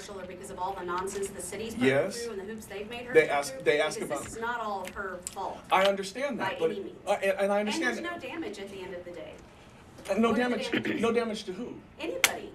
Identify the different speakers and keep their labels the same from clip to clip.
Speaker 1: of all the nonsense the city's put her
Speaker 2: Yes.
Speaker 1: through and the hoops they've made her
Speaker 2: They
Speaker 1: go
Speaker 2: ask-
Speaker 1: through,
Speaker 2: they ask
Speaker 1: because
Speaker 2: about-
Speaker 1: this is not all her fault.
Speaker 2: I understand that,
Speaker 1: By
Speaker 2: but,
Speaker 1: any means.
Speaker 2: I- and and I
Speaker 1: And
Speaker 2: understand
Speaker 1: there's
Speaker 2: that.
Speaker 1: no damage at the end of the day.
Speaker 2: And no
Speaker 1: what are the
Speaker 2: damage,
Speaker 1: damages?
Speaker 2: no damage to who?
Speaker 1: Anybody.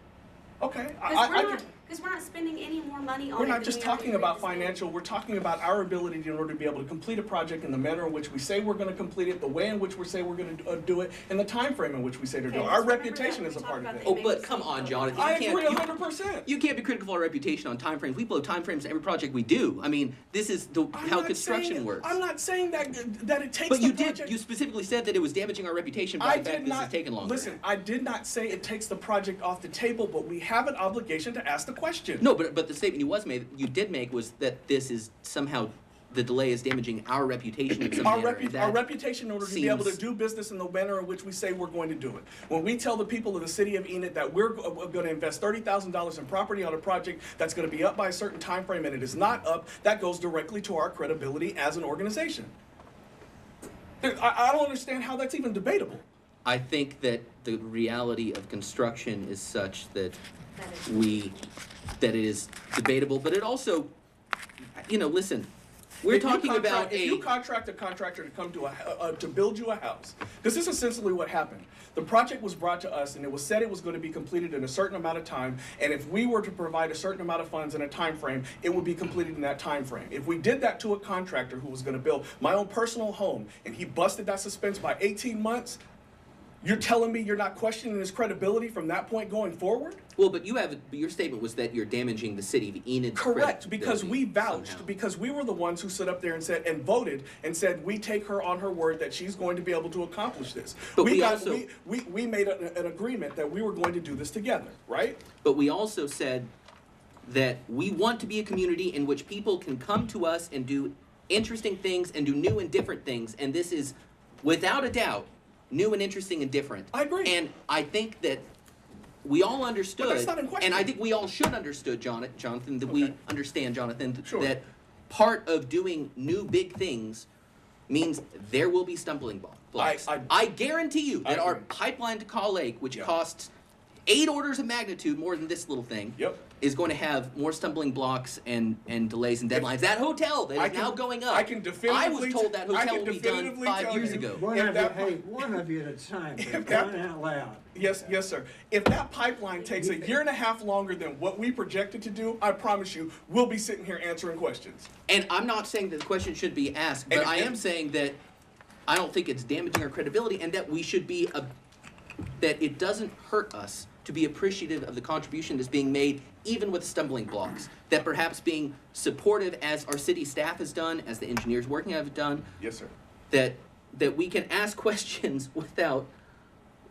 Speaker 2: Okay, I,
Speaker 1: Because
Speaker 2: I, I
Speaker 1: we're not,
Speaker 2: could-
Speaker 1: because we're not spending any more money on it.
Speaker 2: we're not
Speaker 1: than
Speaker 2: just
Speaker 1: we already
Speaker 2: talking about
Speaker 1: agreed to spend.
Speaker 2: financial, we're talking about our ability in order to be able to complete a project in the manner in which we say we're gonna complete it, the way in which we say we're gonna uh, do it, and the time frame in which we say to
Speaker 1: Okay,
Speaker 2: do it.
Speaker 1: let's
Speaker 2: Our
Speaker 1: remember that
Speaker 2: reputation
Speaker 1: when
Speaker 2: is
Speaker 1: we
Speaker 2: a
Speaker 1: talk
Speaker 2: part of
Speaker 1: about
Speaker 2: it.
Speaker 1: the
Speaker 3: Oh, but
Speaker 1: Maybe
Speaker 3: come on,
Speaker 1: speak
Speaker 3: Jonathan.
Speaker 1: over
Speaker 2: I
Speaker 3: You can't-
Speaker 2: agree
Speaker 3: you-
Speaker 2: hundred percent.
Speaker 3: You can't be critical of our reputation on timeframes. We blow timeframes to every project we do. I mean, this is the, how construction works.
Speaker 2: I'm not saying that, that it takes
Speaker 3: but
Speaker 2: the
Speaker 3: you
Speaker 2: project.
Speaker 3: did. You specifically said that it was damaging our reputation by
Speaker 2: I
Speaker 3: the fact
Speaker 2: did
Speaker 3: this
Speaker 2: not,
Speaker 3: is taking longer.
Speaker 2: listen, I did not say it takes the project off the table, but we have an obligation to ask the question.
Speaker 3: No, but but the statement you was made, you did make, was that this is somehow the delay is damaging our reputation in some
Speaker 2: our,
Speaker 3: manner.
Speaker 2: repu-
Speaker 3: That-
Speaker 2: our reputation in order to be able to
Speaker 3: seems-
Speaker 2: do business in the manner in which we say we're going to do it. When we tell the people of the city of Enid that we're going to invest $30,000 in property on a project that's going to be up by a certain time frame and it is not up, that goes directly to our credibility as an organization. There, I, I don't understand how that's even debatable.
Speaker 3: I think that the reality of construction is such that
Speaker 1: That is-
Speaker 3: we that it is debatable, but it also, you know, listen, we're
Speaker 2: If you
Speaker 3: talking
Speaker 2: contract-
Speaker 3: about
Speaker 2: If
Speaker 3: a.
Speaker 2: you contract a contractor to come to a, uh, to build you a house, this is essentially what happened. The project was brought to us and it was said it was going to be completed in a certain amount of time, and if we were to provide a certain amount of funds in a time frame, it would be completed in that time frame. If we did that to a contractor who was going to build my own personal home and he busted that suspense by 18 months, you're telling me you're not questioning his credibility from that point going forward?
Speaker 3: Well, but you have your statement was that you're damaging the city of Enid.
Speaker 2: Correct, because we vouched, because we were the ones who stood up there and said and voted and said we take her on her word that she's going to be able to accomplish this.
Speaker 3: But we also-
Speaker 2: we, we we made an, an agreement that we were going to do this together, right?
Speaker 3: But we also said that we want to be a community in which people can come to us and do interesting things and do new and different things, and this is, without a doubt, new and interesting and different.
Speaker 2: I agree.
Speaker 3: And I think that we all understood,
Speaker 2: not in question.
Speaker 3: and I think we all should understood, Jon- Jonathan, that we
Speaker 2: Okay.
Speaker 3: understand, Jonathan, th-
Speaker 2: Sure.
Speaker 3: that part of doing new big things means there will be stumbling blo- blocks.
Speaker 2: I-
Speaker 3: guarantee you
Speaker 2: I
Speaker 3: that our
Speaker 2: agree.
Speaker 3: pipeline to Call Lake, which
Speaker 2: Yeah.
Speaker 3: costs eight orders of magnitude more than this little thing,
Speaker 2: Yep.
Speaker 3: is going to have more stumbling blocks and, and delays and deadlines. That hotel that is
Speaker 2: I can-
Speaker 3: now going up.
Speaker 2: I can definitively
Speaker 3: I was told that
Speaker 2: t- I
Speaker 3: hotel
Speaker 2: can
Speaker 3: will be done
Speaker 2: definitively
Speaker 3: five
Speaker 2: tell
Speaker 3: years
Speaker 2: you-
Speaker 3: ago.
Speaker 2: What?
Speaker 4: One
Speaker 2: If
Speaker 4: of you,
Speaker 2: that
Speaker 4: hey,
Speaker 2: part-
Speaker 4: one of you at a time,
Speaker 2: If
Speaker 4: for
Speaker 2: that-
Speaker 4: crying out loud.
Speaker 2: Yes, yes, sir. If that pipeline takes a year and a half longer than what we projected to do, I promise you, we'll be sitting here answering questions.
Speaker 3: And I'm not saying that the question should be asked, but
Speaker 2: And-
Speaker 3: I
Speaker 2: and-
Speaker 3: am saying that I don't think it's damaging our credibility and that we should be a, that it doesn't hurt us to be appreciative of the contribution that's being made even with stumbling blocks that perhaps being supportive as our city staff has done as the engineers working have done
Speaker 2: Yes, sir.
Speaker 3: that that we can ask questions without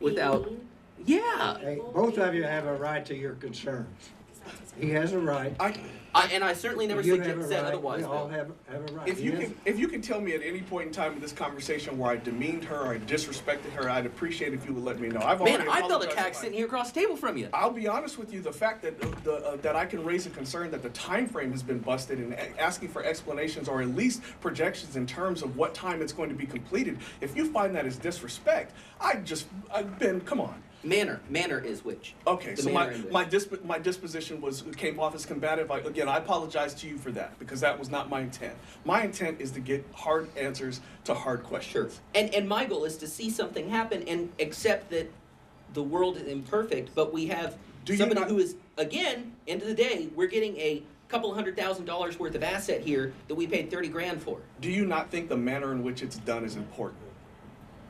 Speaker 3: without
Speaker 1: Being mean.
Speaker 3: yeah
Speaker 4: Hey, both of you have a right to your concerns. He has a right.
Speaker 2: I
Speaker 3: I, and I certainly never
Speaker 4: You have a
Speaker 3: suggest, said
Speaker 4: right.
Speaker 3: otherwise
Speaker 4: We all
Speaker 3: Bill.
Speaker 4: have, have a right.
Speaker 2: If you
Speaker 4: He has-
Speaker 2: can, if you can tell me at any point in time in this conversation where I demeaned her or I disrespected her, I'd appreciate if you would let me know. I've
Speaker 3: man
Speaker 2: already
Speaker 3: I felt
Speaker 2: apologized
Speaker 3: attacked
Speaker 2: if I-
Speaker 3: sitting here across the table from you
Speaker 2: I'll be honest with you. The fact that the, the uh, that I can raise a concern that the time frame has been busted and a- asking for explanations or at least projections in terms of what time it's going to be completed. If you find that is disrespect, I just I've been come on.
Speaker 3: manner manner is which
Speaker 2: Okay,
Speaker 3: The
Speaker 2: so
Speaker 3: manner
Speaker 2: my
Speaker 3: in which.
Speaker 2: my, disp- my disposition was came off as combative. I, again, I apologize to you for that because that was not my intent. My intent is to get hard answers to hard
Speaker 3: Sure.
Speaker 2: questions.
Speaker 3: And and my goal is to see something happen and accept that the world is imperfect, but we have
Speaker 2: Do you
Speaker 3: somebody
Speaker 2: not-
Speaker 3: who is again, end of the day, we're getting a couple hundred thousand dollars worth of asset here that we paid thirty grand for.
Speaker 2: Do you not think the manner in which it's done is important?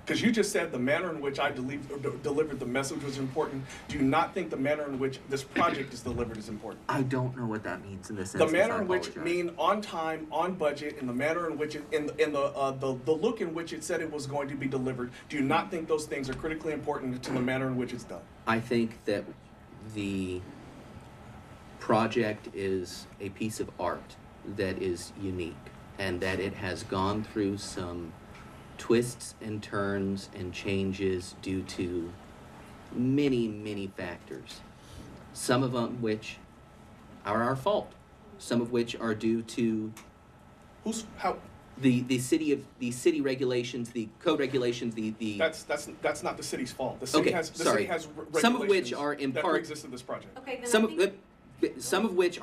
Speaker 2: Because you just said the manner in which I deli- or de- delivered the message was important. Do you not think the manner in which this project is delivered is important?
Speaker 3: I don't know what that means in this
Speaker 2: The manner in which mean on time, on budget, and the manner in which it, in, in the, uh, the the look in which it said it was going to be delivered. Do you not think those things are critically important to the manner in which it's done?
Speaker 3: I think that the project is a piece of art that is unique and that it has gone through some twists and turns and changes due to many, many factors. Some of them which are our fault, some of which are due to
Speaker 2: Who's how?
Speaker 3: the, the city of the city regulations, the code regulations, the, the
Speaker 2: That's that's that's not the city's fault. The city
Speaker 3: Okay,
Speaker 2: has the
Speaker 3: sorry.
Speaker 2: city has re-
Speaker 3: Some of which
Speaker 2: regulations
Speaker 3: are in
Speaker 2: that
Speaker 3: part-
Speaker 2: exist in this project.
Speaker 1: Okay, then I
Speaker 3: some of
Speaker 1: think-
Speaker 3: uh, some of which